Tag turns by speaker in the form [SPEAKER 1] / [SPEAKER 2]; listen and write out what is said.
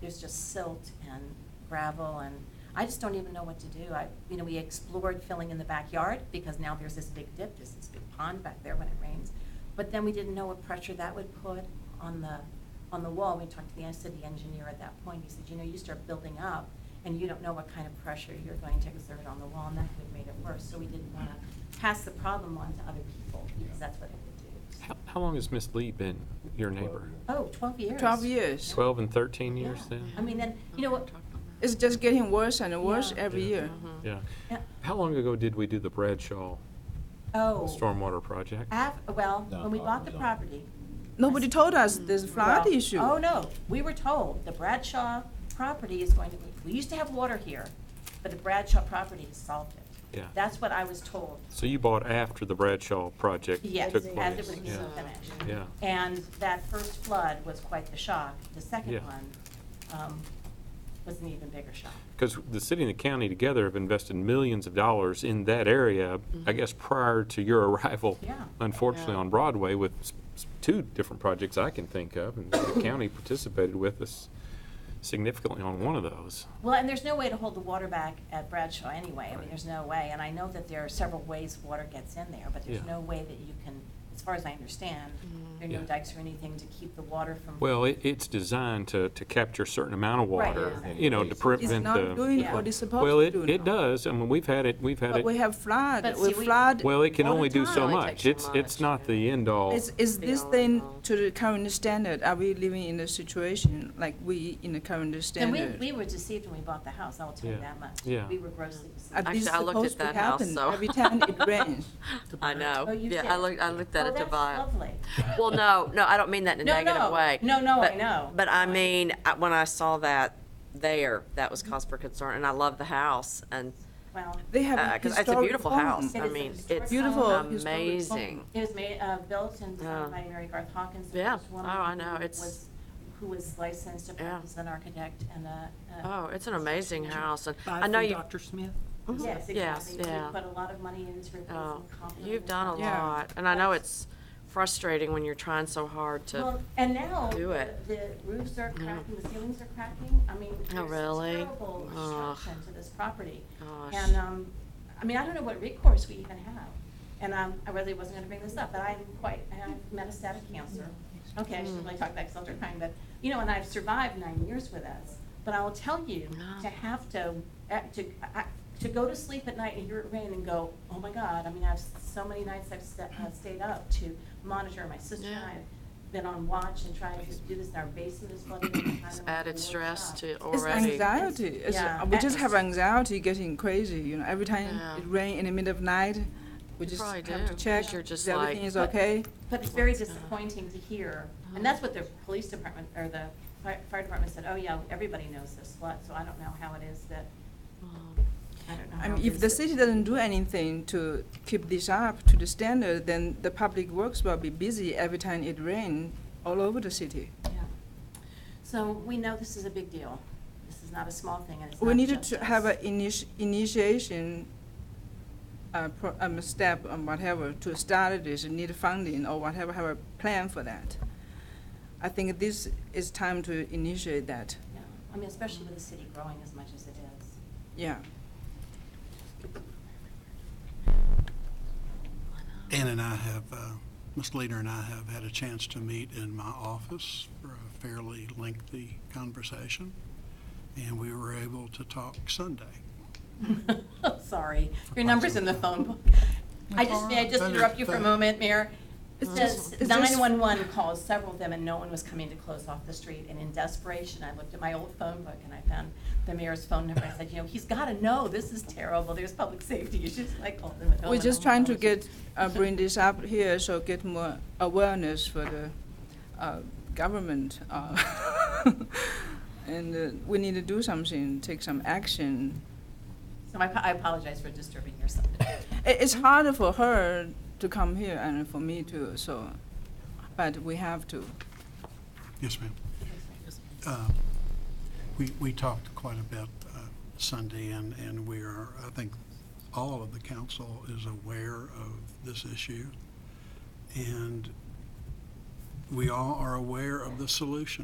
[SPEAKER 1] there's just silt and gravel, and I just don't even know what to do. I, you know, we explored filling in the backyard, because now there's this big dip, there's this big pond back there when it rains. But then we didn't know what pressure that would put on the, on the wall. We talked to the, I said, the engineer at that point, he said, you know, you start building up, and you don't know what kind of pressure you're going to exert on the wall, and that could have made it worse. So we didn't want to pass the problem on to other people, because that's what it would do. So-
[SPEAKER 2] How, how long has Miss Lee been your neighbor?
[SPEAKER 1] Oh, 12 years.
[SPEAKER 3] 12 years.
[SPEAKER 2] Twelve and thirteen years
[SPEAKER 1] Yeah.
[SPEAKER 2] then?
[SPEAKER 1] I mean, then, you know what,
[SPEAKER 3] It's just getting worse and worse
[SPEAKER 1] Yeah.
[SPEAKER 3] every year.
[SPEAKER 2] Yeah. Mm-hmm.
[SPEAKER 1] Yeah.
[SPEAKER 2] How long ago did we do the Bradshaw
[SPEAKER 1] oh,
[SPEAKER 2] stormwater project?
[SPEAKER 1] af, well,
[SPEAKER 4] No,
[SPEAKER 1] when we bought the
[SPEAKER 4] no.
[SPEAKER 1] property.
[SPEAKER 3] Nobody told us there's flood
[SPEAKER 1] mm-hmm. well,
[SPEAKER 3] issue.
[SPEAKER 1] Oh, no, we were told the Bradshaw property is going to, be- we used to have water here, but the Bradshaw property has solved it.
[SPEAKER 2] Yeah.
[SPEAKER 1] That's what I was told,
[SPEAKER 2] So you bought after the Bradshaw project took
[SPEAKER 1] yes,
[SPEAKER 2] place?
[SPEAKER 1] as it was being
[SPEAKER 2] Yeah.
[SPEAKER 1] finished.
[SPEAKER 2] Yeah.
[SPEAKER 1] And that first flood was quite the shock. The second
[SPEAKER 2] Yeah.
[SPEAKER 1] one um, was an even bigger shock.
[SPEAKER 2] Because the city and the county together have invested millions of dollars in that area, I guess prior to your arrival.
[SPEAKER 1] Mm-hmm. Yeah.
[SPEAKER 2] Unfortunately,
[SPEAKER 5] Yeah.
[SPEAKER 2] on Broadway with s- s- two different projects I can think of, and the county participated with us significantly on one of those.
[SPEAKER 1] Well, and there's no way to hold the water back at Bradshaw anyway. I mean,
[SPEAKER 2] Right.
[SPEAKER 1] there's no way. And I know that there are several ways water gets in there, but there's
[SPEAKER 2] Yeah.
[SPEAKER 1] no way that you can, as far as I understand, there are no
[SPEAKER 2] Yeah.
[SPEAKER 1] dikes or anything to keep the water from.
[SPEAKER 2] Well, it, it's designed to, to capture a certain amount of
[SPEAKER 1] Right.
[SPEAKER 2] water,
[SPEAKER 1] Yeah.
[SPEAKER 2] you know, to
[SPEAKER 4] It's
[SPEAKER 2] prevent
[SPEAKER 3] It's
[SPEAKER 2] the.
[SPEAKER 3] not doing
[SPEAKER 1] Yeah.
[SPEAKER 3] what it's supposed to do
[SPEAKER 2] Well, it, it
[SPEAKER 3] now.
[SPEAKER 2] does. I mean, we've had it, we've had
[SPEAKER 3] But we
[SPEAKER 2] it.
[SPEAKER 3] have flood,
[SPEAKER 1] But
[SPEAKER 3] we
[SPEAKER 1] see, we-
[SPEAKER 3] flood.
[SPEAKER 2] Well, it can
[SPEAKER 3] all the
[SPEAKER 2] only do
[SPEAKER 3] time.
[SPEAKER 2] so
[SPEAKER 5] Only
[SPEAKER 2] much.
[SPEAKER 5] takes so
[SPEAKER 2] It's, it's
[SPEAKER 5] much,
[SPEAKER 2] not
[SPEAKER 5] yeah.
[SPEAKER 2] the end all.
[SPEAKER 3] Is, is
[SPEAKER 5] They
[SPEAKER 3] this
[SPEAKER 5] all
[SPEAKER 3] thing
[SPEAKER 5] know.
[SPEAKER 3] to the current standard? Are we living in a situation like we in the current
[SPEAKER 1] And we,
[SPEAKER 3] standard?
[SPEAKER 1] we were deceived when we bought the house, I'll tell you
[SPEAKER 2] Yeah.
[SPEAKER 1] that much.
[SPEAKER 2] Yeah.
[SPEAKER 1] We were grossly deceived.
[SPEAKER 3] Are
[SPEAKER 5] Actually,
[SPEAKER 3] these
[SPEAKER 5] I looked at
[SPEAKER 3] supposed to
[SPEAKER 5] that house,
[SPEAKER 3] happen
[SPEAKER 5] so-
[SPEAKER 3] every time it rains?
[SPEAKER 5] I know.
[SPEAKER 1] Oh, you
[SPEAKER 5] yeah,
[SPEAKER 1] did?
[SPEAKER 5] I looked. I looked at
[SPEAKER 1] Oh,
[SPEAKER 5] it to
[SPEAKER 1] that's
[SPEAKER 5] buy.
[SPEAKER 1] lovely.
[SPEAKER 5] Well, no, no, I don't mean that in a
[SPEAKER 1] No,
[SPEAKER 5] negative
[SPEAKER 1] no.
[SPEAKER 5] way.
[SPEAKER 1] No, no, I
[SPEAKER 5] But-
[SPEAKER 1] know.
[SPEAKER 5] But I mean, I- when I saw that there, that was cause for concern, and I love the house, and
[SPEAKER 1] Well,
[SPEAKER 3] They have a
[SPEAKER 5] because it's a
[SPEAKER 3] historic
[SPEAKER 5] beautiful
[SPEAKER 3] home.
[SPEAKER 5] house.
[SPEAKER 1] It
[SPEAKER 5] I
[SPEAKER 1] is a
[SPEAKER 5] mean,
[SPEAKER 1] historic
[SPEAKER 5] it's
[SPEAKER 3] Beautiful home.
[SPEAKER 5] amazing.
[SPEAKER 1] it was made, uh, built and
[SPEAKER 5] Yeah.
[SPEAKER 1] designed by Mary Garth Hawkins, the
[SPEAKER 5] Oh. Yeah.
[SPEAKER 1] first woman.
[SPEAKER 5] Oh, I know.
[SPEAKER 1] who
[SPEAKER 5] It's-
[SPEAKER 1] was- Who was licensed to
[SPEAKER 5] Yeah.
[SPEAKER 1] practice as an architect and a. a-
[SPEAKER 5] Oh, it's an amazing house, and
[SPEAKER 6] Buy
[SPEAKER 5] I know
[SPEAKER 6] from
[SPEAKER 5] you. Mhm.
[SPEAKER 6] Dr. Smith?
[SPEAKER 1] Yes,
[SPEAKER 5] Yes,
[SPEAKER 1] exactly. We
[SPEAKER 5] yeah.
[SPEAKER 1] put a lot of money into replacing
[SPEAKER 5] Oh,
[SPEAKER 1] copper.
[SPEAKER 5] you've done a
[SPEAKER 3] Yeah.
[SPEAKER 5] lot, and I know it's frustrating when you're trying so hard to.
[SPEAKER 1] Well, and now,
[SPEAKER 5] do it.
[SPEAKER 1] the roofs are
[SPEAKER 5] Yeah. Oh,
[SPEAKER 1] cracking, the ceilings are cracking, I mean, there's
[SPEAKER 5] really?
[SPEAKER 1] terrible
[SPEAKER 5] Ugh.
[SPEAKER 1] destruction to this property.
[SPEAKER 5] Gosh.
[SPEAKER 1] And, um, I mean, I don't know what recourse we even have, and, um, I really wasn't gonna bring this up, but I'm quite, I have metastatic cancer. Okay, I shouldn't really talk about cytocrine, but, you know, and I've survived nine years with this, but I will tell you,
[SPEAKER 5] Yeah.
[SPEAKER 1] to have to, uh, to, I- to go to sleep at night and hear it rain and go, oh my God, I mean, I've, so many nights I've sta- uh, stayed up to monitor, my sister and I
[SPEAKER 5] Yeah.
[SPEAKER 1] have been on watch and trying to do this, and our basement is flooded. and kind
[SPEAKER 5] It's
[SPEAKER 1] of
[SPEAKER 5] added
[SPEAKER 1] like
[SPEAKER 5] stress
[SPEAKER 1] workshop.
[SPEAKER 5] to
[SPEAKER 3] It's
[SPEAKER 5] already.
[SPEAKER 3] anxiety. It's, uh,
[SPEAKER 1] Yeah.
[SPEAKER 3] We just have
[SPEAKER 1] It's-
[SPEAKER 3] anxiety getting crazy, you know, every time
[SPEAKER 5] Yeah.
[SPEAKER 3] it rains in the middle of night, we
[SPEAKER 5] You
[SPEAKER 3] just
[SPEAKER 5] probably
[SPEAKER 3] have to
[SPEAKER 5] do, 'cause
[SPEAKER 3] check,
[SPEAKER 5] you're
[SPEAKER 3] is
[SPEAKER 5] just like-
[SPEAKER 3] everything is okay?
[SPEAKER 1] But it's very
[SPEAKER 5] What's that?
[SPEAKER 1] disappointing to hear, and that's what the police department, or the fire fire department said, oh yeah, everybody knows this flood, so I don't know how it is that,
[SPEAKER 5] Oh.
[SPEAKER 1] I don't know.
[SPEAKER 3] I
[SPEAKER 1] how
[SPEAKER 3] mean,
[SPEAKER 1] it
[SPEAKER 3] if
[SPEAKER 1] is
[SPEAKER 3] the
[SPEAKER 1] that-
[SPEAKER 3] city doesn't do anything to keep this up to the standard, then the public works will be busy every time it rains all over the city.
[SPEAKER 1] Yeah. So we know this is a big deal. This is not a small thing, and it's
[SPEAKER 3] We
[SPEAKER 1] not
[SPEAKER 3] needed
[SPEAKER 1] just
[SPEAKER 3] to have
[SPEAKER 1] us.
[SPEAKER 3] an initi- initiation, uh, pro- um, step or whatever to start this, and need funding or whatever, have a plan for that. I think this is time to initiate that,
[SPEAKER 1] Yeah. I mean, especially with the city growing as much as it is.
[SPEAKER 3] yeah.
[SPEAKER 7] Ann and I have, uh, Ms. Leader and I have had a chance to meet in my office for a fairly lengthy conversation, and we were able to talk Sunday.
[SPEAKER 1] Sorry, your number's in the phone book. I just, may I just interrupt you for a moment, Mayor? It says
[SPEAKER 3] is there s-
[SPEAKER 1] 911 calls, several of them, and no one was coming to close off the street. And in desperation, I looked at my old phone book and I found the mayor's phone number. I said, you know, he's got to know, this is terrible, there's public safety issues. I called him.
[SPEAKER 3] We're just trying to get, uh, bring this up here, so get more awareness for the uh, government. uh, And uh, we need to do something, take some action.
[SPEAKER 1] So I I apologize for disturbing your Sunday.
[SPEAKER 3] I- It's harder for her to come here and for me too, so, but we have to.
[SPEAKER 7] Yes, ma'am. Uh, We, we talked quite a bit uh, Sunday, and, and we are, I think, all of the council is aware of this issue, and we all are aware of the solution.